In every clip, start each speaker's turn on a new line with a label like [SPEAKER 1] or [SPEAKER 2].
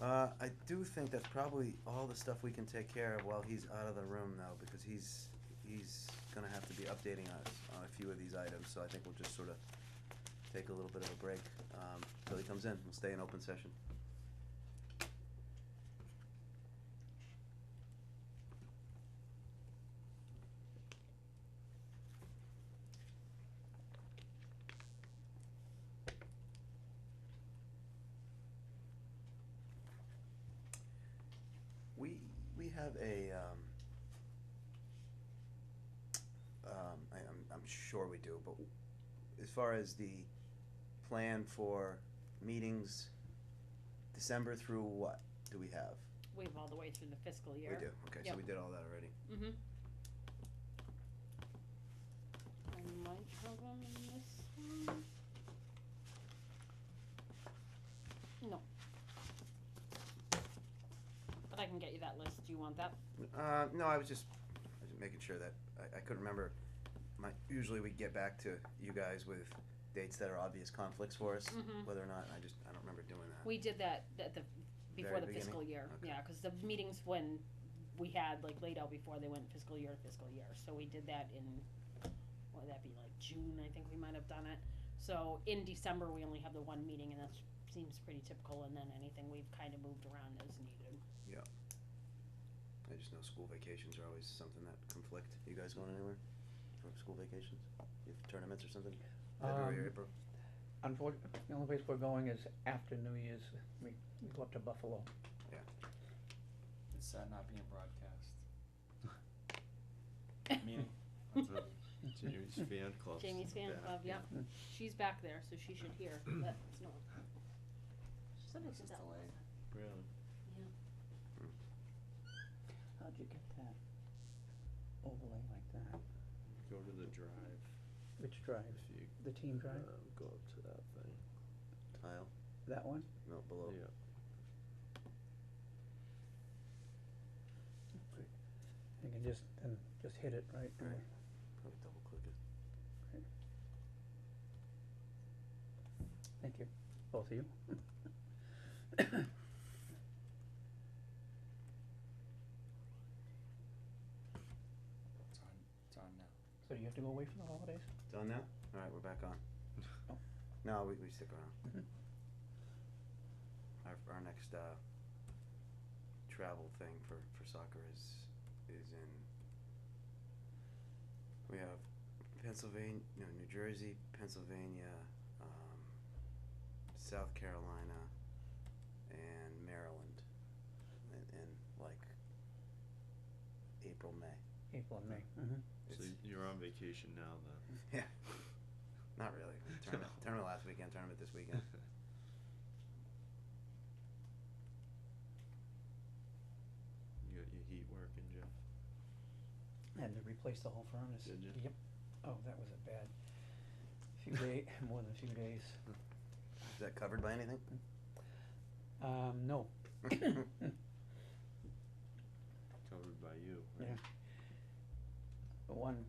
[SPEAKER 1] Uh, I do think that's probably all the stuff we can take care of while he's out of the room now, because he's, he's gonna have to be updating us on a few of these items, so I think we'll just sort of take a little bit of a break, um, till he comes in, we'll stay in open session. We, we have a, um, um, I, I'm, I'm sure we do, but as far as the plan for meetings, December through what do we have?
[SPEAKER 2] We have all the way through the fiscal
[SPEAKER 1] We
[SPEAKER 2] year.
[SPEAKER 1] do, okay, so
[SPEAKER 2] Yep.
[SPEAKER 1] we did all that already.
[SPEAKER 2] Mm-hmm. I might have them in this one. No. But I can get you that list, do you want that?
[SPEAKER 1] Uh, no, I was just, I was just making sure that, I, I couldn't remember. My, usually we get back to you guys with dates that are obvious conflicts for us,
[SPEAKER 2] Mhm.
[SPEAKER 1] whether or not, I just, I don't remember doing that.
[SPEAKER 2] We did that at the, before
[SPEAKER 1] Very
[SPEAKER 2] the
[SPEAKER 1] beginning?
[SPEAKER 2] fiscal year,
[SPEAKER 1] Okay.
[SPEAKER 2] yeah, cause the meetings when we had like laid out before they went fiscal year to fiscal year, so we did that in, what would that be, like June, I think we might have done it. So in December, we only have the one meeting and that seems pretty typical, and then anything we've kind of moved around as needed.
[SPEAKER 1] I just know school vacations are always something that conflict. You guys going anywhere for school vacations? You have tournaments or something? February,
[SPEAKER 3] Um,
[SPEAKER 1] April?
[SPEAKER 3] Unfortunately, the only place we're going is after New Year's, we, we go up to Buffalo.
[SPEAKER 4] It's sad not being broadcast. Meaning, that's a-
[SPEAKER 5] Jamie's fan club.
[SPEAKER 2] Jamie's fan club, yeah,
[SPEAKER 3] Mm.
[SPEAKER 2] she's back there, so she should hear, that's not. Somebody
[SPEAKER 4] This
[SPEAKER 2] said
[SPEAKER 4] is
[SPEAKER 2] that
[SPEAKER 4] delayed.
[SPEAKER 5] Really?
[SPEAKER 3] How'd you get that overlay like that?
[SPEAKER 5] Go to the drive
[SPEAKER 3] Which drive?
[SPEAKER 5] if you
[SPEAKER 3] The team drive?
[SPEAKER 5] um, go up to that thing.
[SPEAKER 1] Tile?
[SPEAKER 3] That one?
[SPEAKER 1] No, below.
[SPEAKER 5] Yeah.
[SPEAKER 3] You can just, and just hit it, right?
[SPEAKER 1] Right. Probably double click it.
[SPEAKER 3] Thank you, both of you.
[SPEAKER 4] It's on, it's on now.
[SPEAKER 3] So do you have to go away for the holidays?
[SPEAKER 1] Done now? Alright, we're back on.
[SPEAKER 3] Oh.
[SPEAKER 1] No, we, we stick around.
[SPEAKER 3] Mhm.
[SPEAKER 1] Our, our next, uh, travel thing for, for soccer is, is in, we have Pennsylvania, no, New Jersey, Pennsylvania, um, South Carolina, and Maryland, in, in like April, May.
[SPEAKER 3] April and May. Mm-hmm.
[SPEAKER 5] So
[SPEAKER 1] It's-
[SPEAKER 5] you're on vacation now then.
[SPEAKER 1] Not really. Tournament, tournament last weekend, tournament this weekend.
[SPEAKER 5] You got your heat working, Jeff?
[SPEAKER 3] Had to replace the whole furnace.
[SPEAKER 5] Did ya?
[SPEAKER 3] Yep. Oh, that was a bad few day, more than a few days.
[SPEAKER 1] Is that covered by anything?
[SPEAKER 3] Um, no,
[SPEAKER 5] Covered by you,
[SPEAKER 3] Yeah.
[SPEAKER 5] right?
[SPEAKER 3] The one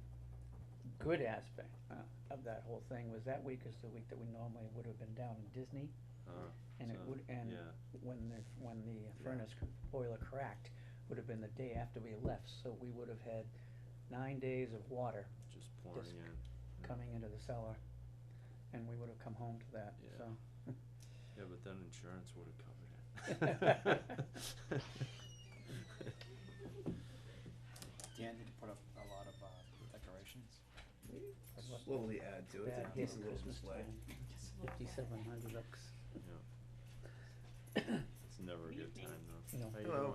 [SPEAKER 3] good aspect uh, of that whole thing was that week is the week that we normally would have been down in Disney,
[SPEAKER 5] Uh,
[SPEAKER 3] and it
[SPEAKER 5] so,
[SPEAKER 3] would, and
[SPEAKER 5] Yeah,
[SPEAKER 3] when the, when the furnace c- boiler cracked, would have been the day after we left, so we would have had nine days of water
[SPEAKER 5] just pouring in. Yeah.
[SPEAKER 3] coming into the cellar, and we would have come home to that,
[SPEAKER 5] Yeah.
[SPEAKER 3] so.
[SPEAKER 5] Yeah, but then insurance would have covered it.
[SPEAKER 4] Dan need to put up a lot of, uh, decorations.
[SPEAKER 3] I'd love
[SPEAKER 1] Slowly add to it.
[SPEAKER 3] Bad
[SPEAKER 1] It's
[SPEAKER 3] hit
[SPEAKER 1] a little
[SPEAKER 3] Christmas
[SPEAKER 1] display.
[SPEAKER 3] time, fifty-seven hundred bucks,
[SPEAKER 5] Yeah. It's never a good time though.
[SPEAKER 3] you know.
[SPEAKER 5] How you
[SPEAKER 1] Hello.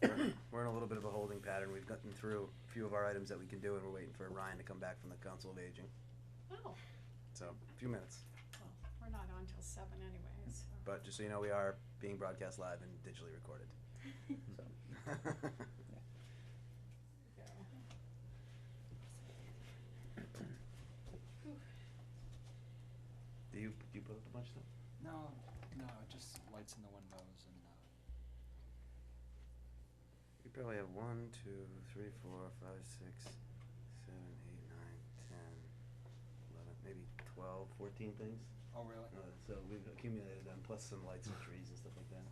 [SPEAKER 5] doing?
[SPEAKER 1] We're in a little bit of a holding pattern. We've gotten through a few of our items that we can do, and we're waiting for Ryan to come back from the Council of Aging.
[SPEAKER 6] Oh,
[SPEAKER 1] So, a few minutes.
[SPEAKER 6] well, we're not on till seven anyways, so.
[SPEAKER 1] But just so you know, we are being broadcast live and digitally recorded.
[SPEAKER 3] So-
[SPEAKER 1] do you do you put up a bunch of stuff?
[SPEAKER 4] No, no, just lights in the windows and, uh,
[SPEAKER 1] You probably have one, two, three, four, five, six, seven, eight, nine, ten, eleven, maybe twelve, fourteen things.
[SPEAKER 4] oh, really?
[SPEAKER 1] Uh, so we've accumulated them, plus some lights and trees and stuff like that.